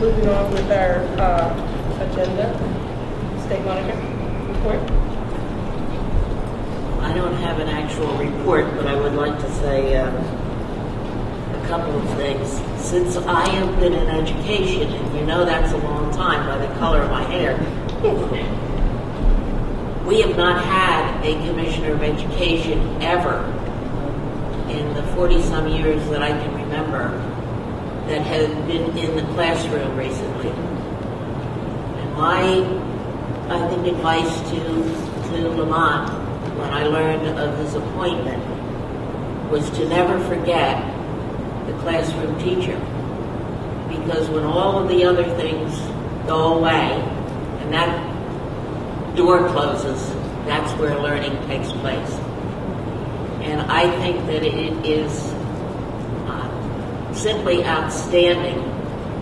Moving on with our uh, agenda, state monitor report. I don't have an actual report, but I would like to say um, a couple of things. Since I have been in education, and you know that's a long time by the color of my hair, we have not had a commissioner of education ever in the 40 some years that I can remember that has been in the classroom recently. And my, I think, advice to, to Lamont when I learned of his appointment was to never forget the classroom teacher. Because when all of the other things go away and that door closes, that's where learning takes place. And I think that it is uh, simply outstanding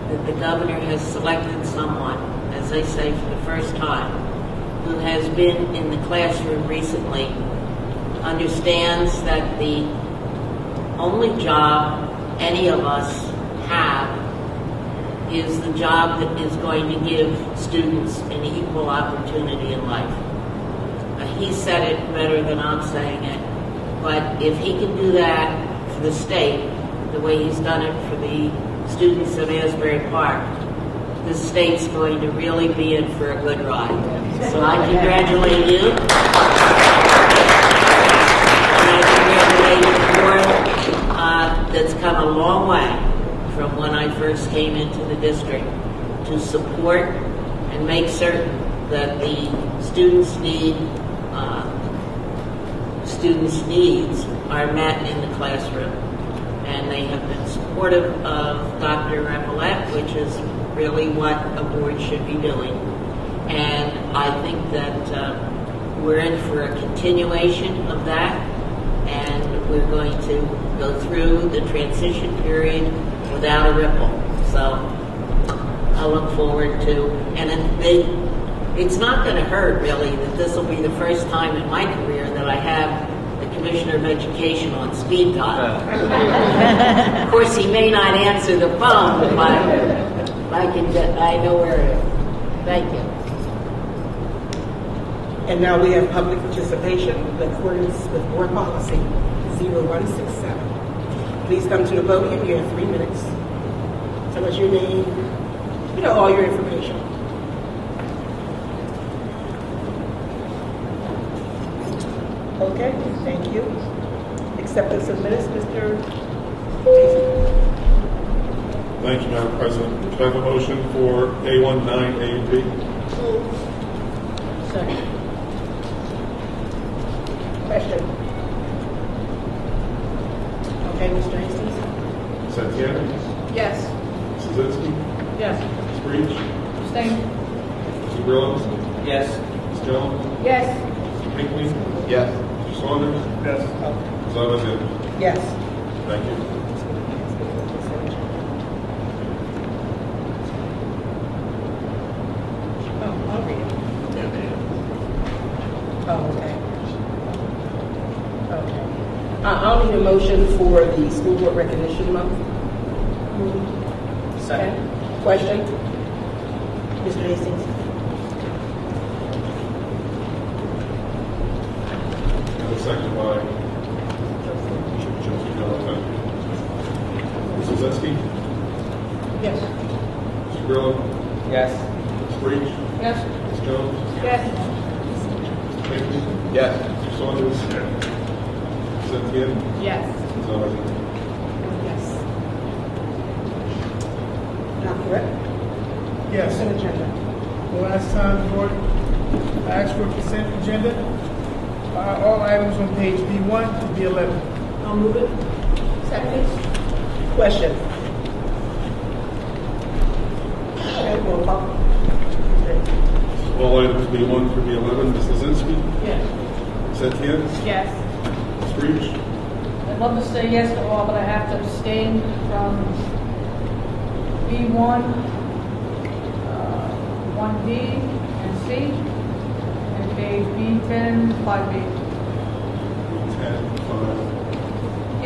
that the governor has selected someone, as I say for the first time, who has been in the classroom recently, understands that the only job any of us have is the job that is going to give students an equal opportunity in life. Uh, he said it better than I'm saying it, but if he can do that for the state, the way he's done it for the students of Asbury Park, the state's going to really be in for a good ride. So I congratulate you. And I congratulate the board uh, that's come a long way from when I first came into the district to support and make certain that the students' need, uh, students' needs are met in the classroom. And they have been supportive of Dr. Rappelette, which is really what a board should be doing. And I think that uh, we're in for a continuation of that and we're going to go through the transition period without a ripple. So I look forward to, and it, they, it's not going to hurt really that this will be the first time in my career that I have the Commissioner of Education on speed dial. Uh, Of course, he may not answer the phone, but I can, get- I know where it is. Thank you. And now we have public participation in accordance with board policy 0167. Please come to the podium, you have three minutes. Tell us your name, you know, all your information. Okay, thank you. Acceptance of minutes, Mr. Thank you, Madam President. Could I have a motion for A19, A and B? Question. Okay, Mr. Hastings? Santana? Yes. Mrs. Yes. Mrs. Breach? Abstain? Mr. Grillo? Yes. Ms. Jones? Yes. Mr. Pinckney? Yes. Mr. Saunders? Yes. Ms. Levinson? Yes. Thank you. Oh, I'll read it. Oh, okay. Okay. I- I'll need a motion for the school board recognition month. Second. Question? Mr. Hastings? And a second by Trustee Valiquette. Mrs. Zeski? Yes. Mr. Grillo? Yes. Ms. Breach? Yes. Ms. Jones? Yes. Mr. Pinckney? Yes. Mr. Saunders? Santana? Yes. Ms. Levinson? Yes. Dr. Rett? Yes, Consent agenda. the last time the board asked for consent agenda, uh, all items on page B1 to B11. I'll move it. Second? Question? Okay, roll call. All items B1 through B11, Mrs. Zeski? Yes. Santana? Yes. Ms. Breach? I'd love to say yes to all, but I have to abstain from B1, uh, 1D, and C, and page B10, 5B. Ten, five,